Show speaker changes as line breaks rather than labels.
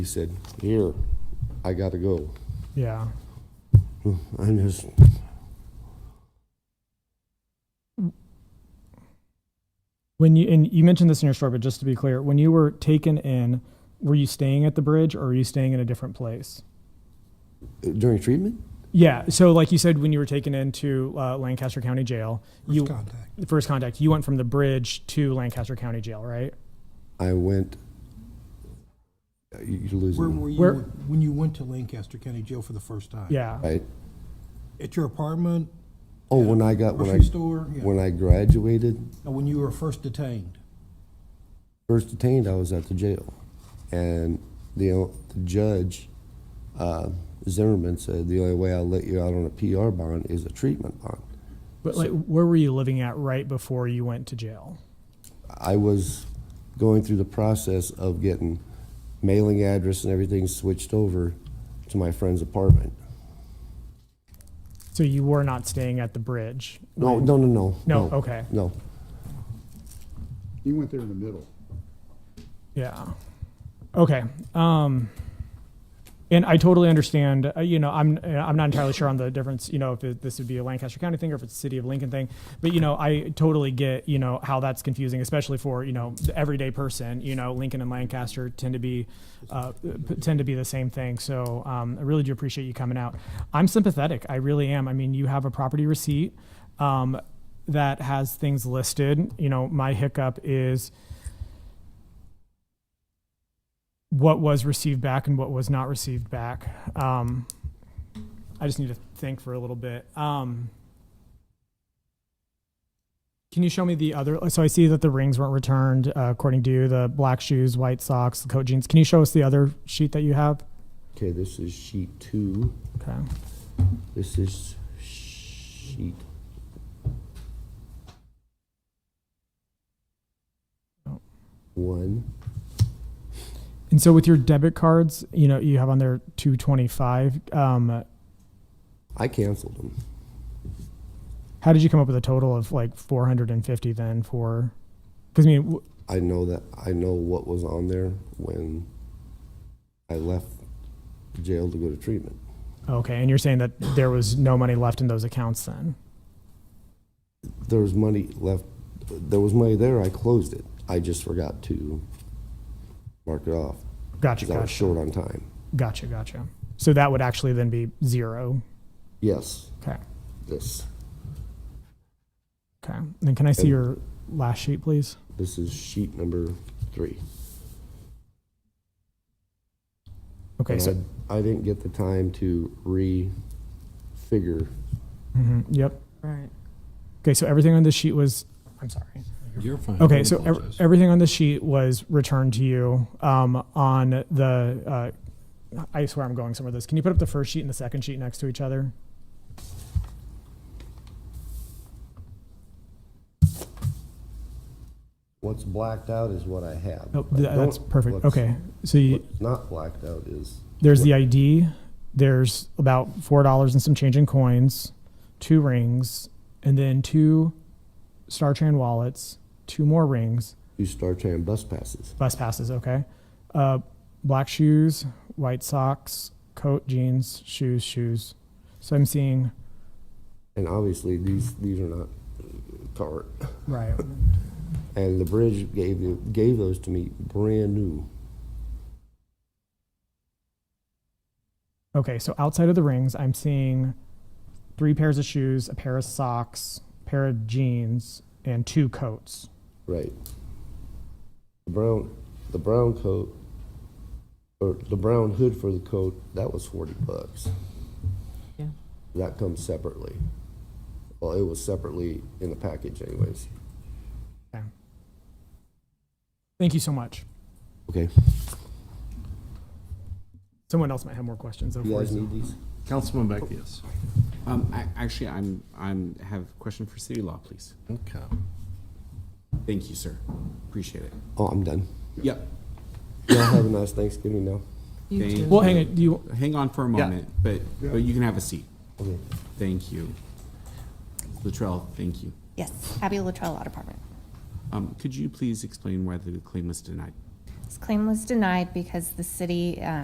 He said, here, I gotta go.
Yeah.
I'm just,
When you and you mentioned this in your story, but just to be clear, when you were taken in, were you staying at the bridge or were you staying in a different place?
during treatment?
Yeah. So, like you said, when you were taken into uh, Lancaster County Jail, you
contact.
the first contact, you went from the bridge to Lancaster County Jail, right?
I went, you- you're
Where
losing me,
were you
Where-
when you went to Lancaster County Jail for the first time?
Yeah.
right?
At your apartment,
Oh, when I got, when I,
grocery store? Yeah.
when I graduated,
Now, when you were first detained?
first detained, I was at the jail. And the, o- the judge, uh, Zimmerman said, the only way I'll let you out on a PR bond is a treatment bond.
But like, where were you living at right before you went to jail?
I was going through the process of getting mailing address and everything switched over to my friend's apartment.
So you were not staying at the bridge.
No, no, no, no.
No, okay.
No.
You went there in the middle.
Yeah. Okay. Um, and I totally understand. Uh, you know, I'm I'm not entirely sure on the difference. You know, if it, this would be a Lancaster County thing or if it's a city of Lincoln thing. But you know, I totally get you know how that's confusing, especially for you know the everyday person. You know, Lincoln and Lancaster tend to be uh, p- tend to be the same thing. So um, I really do appreciate you coming out. I'm sympathetic. I really am. I mean, you have a property receipt um, that has things listed. You know, my hiccup is. what was received back and what was not received back. Um, I just need to think for a little bit. Um, can you show me the other? So I see that the rings weren't returned uh, according to you, the black shoes, white socks, the coat jeans. Can you show us the other sheet that you have?
Okay, this is sheet two.
Okay.
This is sheet.
Oh.
One.
And so with your debit cards, you know, you have on there 225. Um,
I canceled them.
how did you come up with a total of like 450 then for, because I mean, w-
I know that I know what was on there when I left jail to go to treatment.
okay. And you're saying that there was no money left in those accounts then?
There was money left. There was money there. I closed it. I just forgot to mark it off
Gotcha.
because I was
Gotcha.
short on time.
Gotcha, gotcha. So that would actually then be zero.
Yes,
Okay,
this.
okay. Then can I see
And-
your last sheet, please?
This is sheet number three.
Okay,
And
so,
I, I didn't get the time to re-figure
mhm, yep.
Right.
Okay, so everything on this sheet was, I'm sorry.
You're fine.
Okay,
Don't
so ev-
apologize.
everything on this sheet was returned to you um, on the, uh, I swear I'm going somewhere with this. Can you put up the first sheet and the second sheet next to each other?
What's blacked out is what I have.
Oh,
I
th- that's
don't-
perfect.
what's-
Okay, so you,
What's not blacked out is,
there's the ID, there's about $4 and some change in coins, two rings, and then two StarTran wallets, two more rings,
you start tearing bus passes.
bus passes, okay? Uh, black shoes, white socks, coat, jeans, shoes, shoes. So I'm seeing,
And obviously, these, these are not current.
right.
And the bridge gave, the- gave those to me brand new.
Okay, so outside of the rings, I'm seeing three pairs of shoes, a pair of socks, pair of jeans, and two coats.
Right. The brown, the brown coat, or the brown hood for the coat, that was forty bucks.
Yeah.
That comes separately. Well, it was separately in the package anyways.
Thank you so much.
Okay.
Someone else might have more questions. Of
You guys
course.
need these?
Councilman Beck, yes.
Um, I, actually, I'm, I'm, have a question for city law, please.
Okay.
Thank you, sir. Appreciate it.
Oh, I'm done.
Yep.
Y'all have a nice Thanksgiving now.
You
Thank
too.
Well, hang on. Do you,
Hang on for a
Yeah.
moment, but, but you can have a seat.
Okay.
Thank you. Latrell, thank you.
Yes, Abby Latrell Law Department.
Um, could you please explain why the claim was denied?
His claim was denied because the city uh,